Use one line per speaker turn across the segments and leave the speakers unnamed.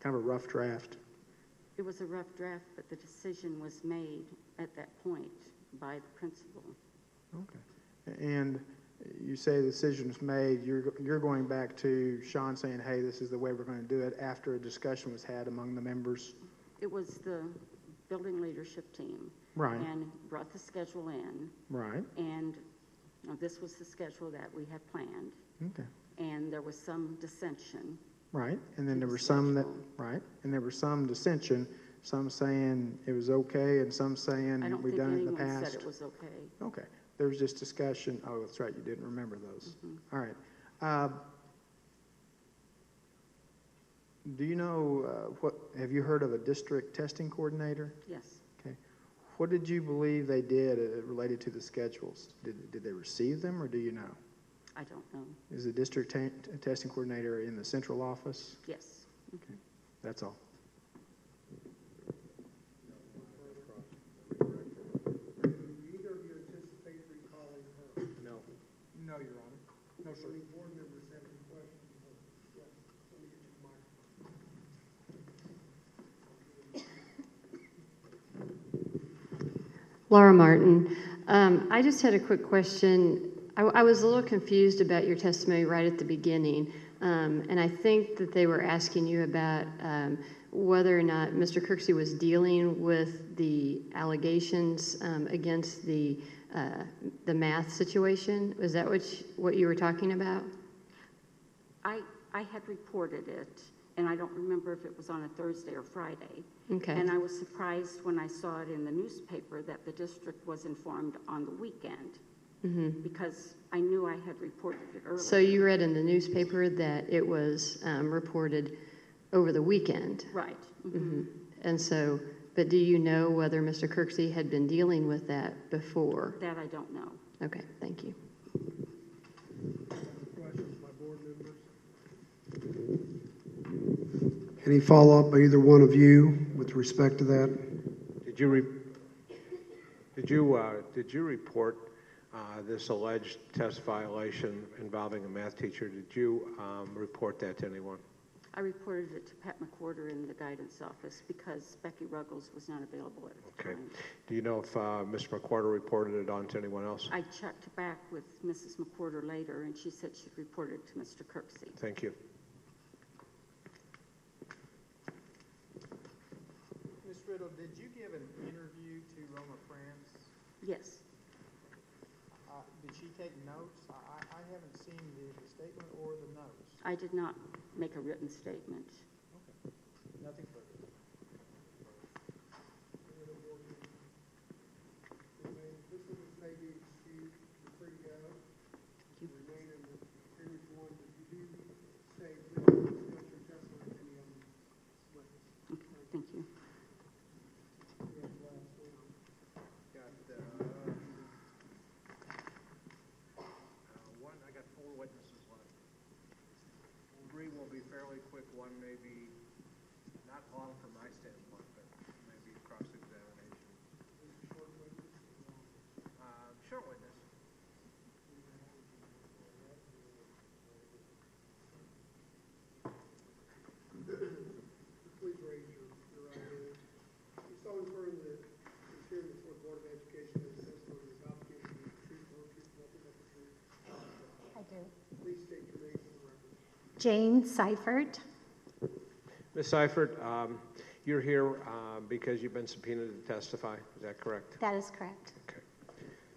kind of a rough draft.
It was a rough draft, but the decision was made at that point by the principal.
Okay. And you say the decision is made, you're, you're going back to Sean saying, hey, this is the way we're going to do it after a discussion was had among the members.
It was the building leadership team.
Right.
And brought the schedule in,
Right.
and uh, this was the schedule that we had planned,
Okay.
and there was some dissension.
Right. And then there were some that,
Dissension.
right. And there were some dissension, some saying it was okay and some saying
I don't
we've
think
done it in the
anyone
past.
said it was okay.
Okay, there was just discussion, oh, that's right, you didn't remember those. All right. Uh, Do you know, uh, what, have you heard of a district testing coordinator?
Yes,
Okay. What did you believe they did uh, related to the schedules? Did, did they receive them, or do you know?
I don't know.
Is the district ta- testing coordinator in the central office?
Yes.
Okay, that's all.
Do either of you anticipate recalling her?
No.
No, Your Honor. No,
How many board members have any questions? Yeah, let me get you the microphone.
Laura Martin. Um, I just had a quick question. I, I was a little confused about your testimony right at the beginning. Um, and I think that they were asking you about um, whether or not Mr. Kirksey was dealing with the allegations um, against the, uh, the math situation. Was that what you, what you were talking about?
I, I had reported it, and I don't remember if it was on a Thursday or Friday.
Okay.
And I was surprised when I saw it in the newspaper that the district was informed on the weekend. Because I knew I had reported it earlier.
Mm-hmm. So you read in the newspaper that it was um, reported over the weekend.
Right.
Mm-hmm.
mhm.
Um, And so, but do you know whether Mr. Kirksey had been dealing with that before?
That I don't know.
Okay, thank you.
Questions by board members? Any follow-up by either one of you with respect to that?
Did you, re- did you, uh, did you report uh, this alleged test violation involving a math teacher? Did you um, report that to anyone?
I reported it to Pat McWhorter in the guidance office because Becky Ruggles was not available at the
Okay.
time.
Do you know if uh, Ms. McWhorter reported it on to anyone else?
I checked back with Mrs. McWhorter later, and she said she'd reported to Mr. Kirksey.
Thank you.
Ms. Riddle, did you give an interview to Roma France?
Yes,
Uh, Did she take notes? I, I I haven't seen the the statement or the notes.
I did not make a written statement.
Nothing further.
This is maybe excused before you go. Remain in the previous one, but you do say, please discuss your testimony with any other witness.
Okay, Thank you.
Yeah, last one.
Got the, one, I got four witnesses left. Three will be fairly quick, one may be not long from my standpoint, but maybe cross-examination. Uh, short witness.
Please raise your, your right hand. You solemnly affirm that the chair of the Board of Education and the testimony is obligated to be truthful, truthful, nothing but the truth.
I do.
Please state your name for the record.
Jane Seifert.
Ms. Seifert, um, you're here uh, because you've been subpoenaed to testify, is that correct?
That is correct.
Okay.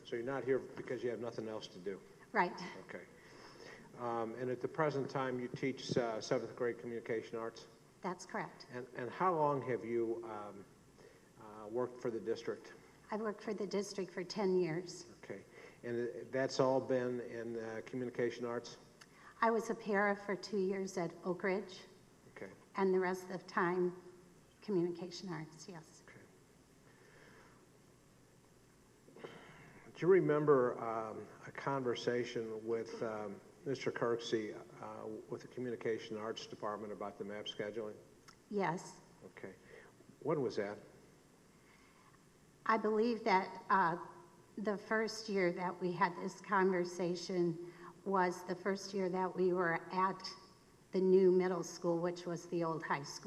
So you're not here because you have nothing else to do?
Right.
Okay. Um, And at the present time, you teach uh, seventh grade communication arts?
That's correct.
And, and how long have you um, uh, worked for the district?
I've worked for the district for 10 years.
Okay. And that's all been in uh, communication arts?
I was a para for two years at Oak Ridge,
Okay,
and the rest of the time, communication arts, yes.
okay. Do you remember um, a conversation with um, Mr. Kirksey uh, with the communication arts department about the map scheduling?
Yes.
Okay. When was that?
I believe that uh, the first year that we had this conversation was the first year that we were at the new middle school, which was the old high school.